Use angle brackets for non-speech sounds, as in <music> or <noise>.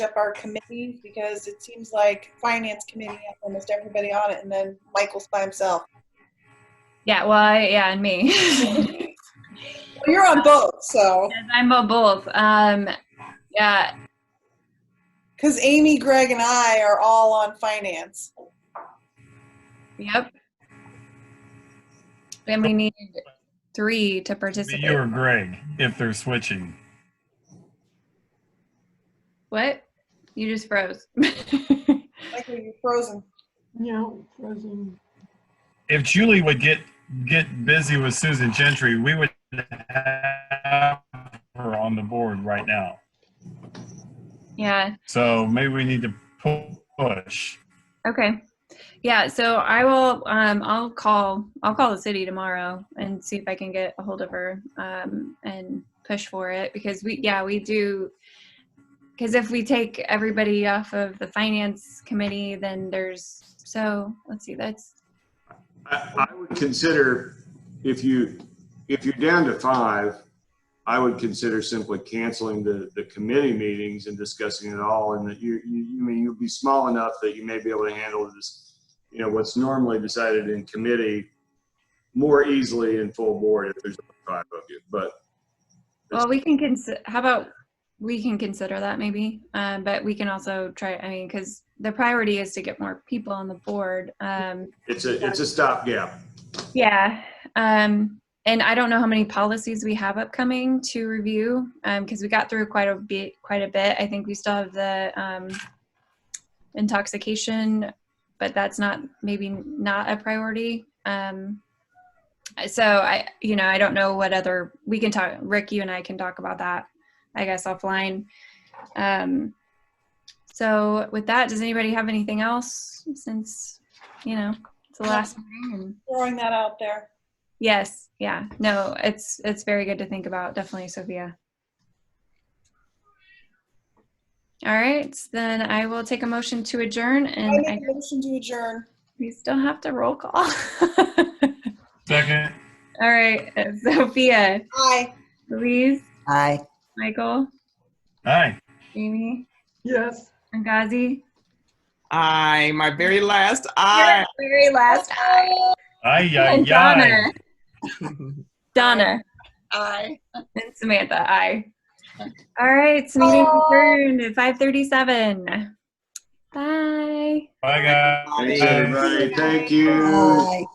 up our committees because it seems like finance committee has almost everybody on it, and then Michael's by <laughs> himself. Yeah, well, I, yeah, and me. <laughs> Well, you're on both, so I'm a both. Um, yeah, because Amy, Greg, and I are all on finance. yep. And we need three to You participate. or Greg, if they're switching. What? You just froze. <laughs> Michael, you're frozen. Yeah, frozen. If Julie would get, get busy with Susan Gentry, we would have her on the board right now. yeah. So maybe we need to pu- push. Okay. Yeah, so I will um I'll call I'll call the city tomorrow and see if I can get a hold of her um and push for it because we yeah, we do because if we take everybody off of the finance committee then there's so let's see that's I I would consider, if you, if you're down to five, I would consider simply canceling the, the committee meetings and discussing it all, and that you, you, you mean, you'll be small enough that you may be able to handle this, you know, what's normally decided in committee more easily in full board if there's five of you, but well we can consider how about we can consider that maybe um but we can also try I mean cuz the priority is to get more people on the board um it's a, it's a stopgap. Yeah. Um, and I don't know how many policies we have upcoming to review because we got through quite a bit. Quite a bit. I think we still have the um, intoxication, but that's not maybe not a priority. Um, so I, you know, I don't know what other we can talk. Rick, you and I can talk about that. I guess offline. Um, so with that, does anybody have anything else? Since you know it's the last meeting and. Throwing that out there. Yes, yeah. No, it's it's very good to think about, definitely, Sophia. All right, then I will take a motion to adjourn I and I, make a motion to adjourn. we still have to roll call. <laughs> Second, All right, uh, Sophia, Aye. Louise, Aye. Michael, aye. Amy, Yes. and Gazi. Aye, my very last aye. Your Very last. Aye, aye, And aye. Donna. Donna Aye. and Samantha, I. All right, so meeting adjourned at 5:37. Bye. Bye, guys. Thanks, everybody. Thank you.